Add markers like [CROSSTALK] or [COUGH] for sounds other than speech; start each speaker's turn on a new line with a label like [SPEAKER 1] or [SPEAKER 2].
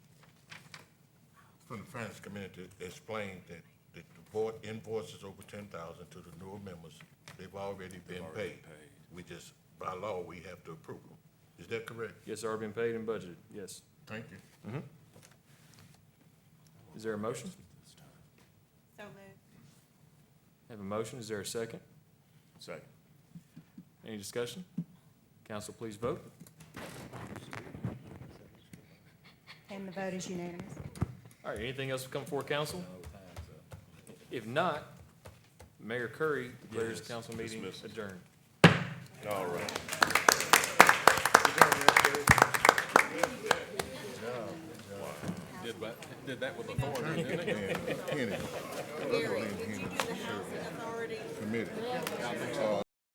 [SPEAKER 1] from the finance committee to explain that, that the board invoices over ten thousand to the newer members, they've already been paid. We just, by law, we have to approve them. Is that correct?
[SPEAKER 2] Yes, sir, been paid and budgeted, yes.
[SPEAKER 1] Thank [LAUGHS] you.
[SPEAKER 2] Is there a motion?
[SPEAKER 3] So moved.
[SPEAKER 2] Have a motion, is there a second?
[SPEAKER 4] Second.
[SPEAKER 2] Any discussion? Council, please vote.
[SPEAKER 3] And the vote is unanimous.
[SPEAKER 2] All right, anything else to come before council? If not, Mayor Curry declares
[SPEAKER 4] Yes,
[SPEAKER 2] council meeting
[SPEAKER 4] dismisses.
[SPEAKER 2] adjourned.
[SPEAKER 4] All right.
[SPEAKER 5] Did that, did that with authority, didn't it?
[SPEAKER 1] Kenny,
[SPEAKER 6] Gary, did you do the housing authority?
[SPEAKER 1] committee, uh,